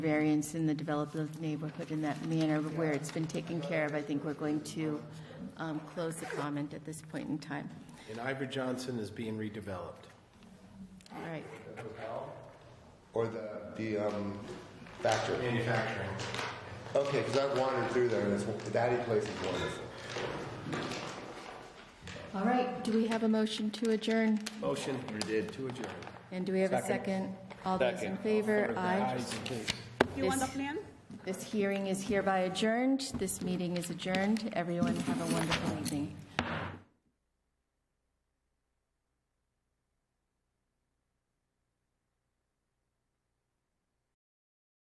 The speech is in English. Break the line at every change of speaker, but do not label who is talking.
variance in the development of the neighborhood in that manner where it's been taken care of, I think we're going to um, close the comment at this point in time.
And Ivor Johnson is being redeveloped.
All right.
Or the, the um, factory.
Manufacturing.
Okay, because I've wandered through there, and it's, that place is wonderful.
All right, do we have a motion to adjourn?
Motion. We did. To adjourn.
And do we have a second? All those in favor? Aye.
Ayes in case.
You want the
Yes.
plan?
This hearing is hereby adjourned. This meeting is adjourned. Everyone have a wonderful evening.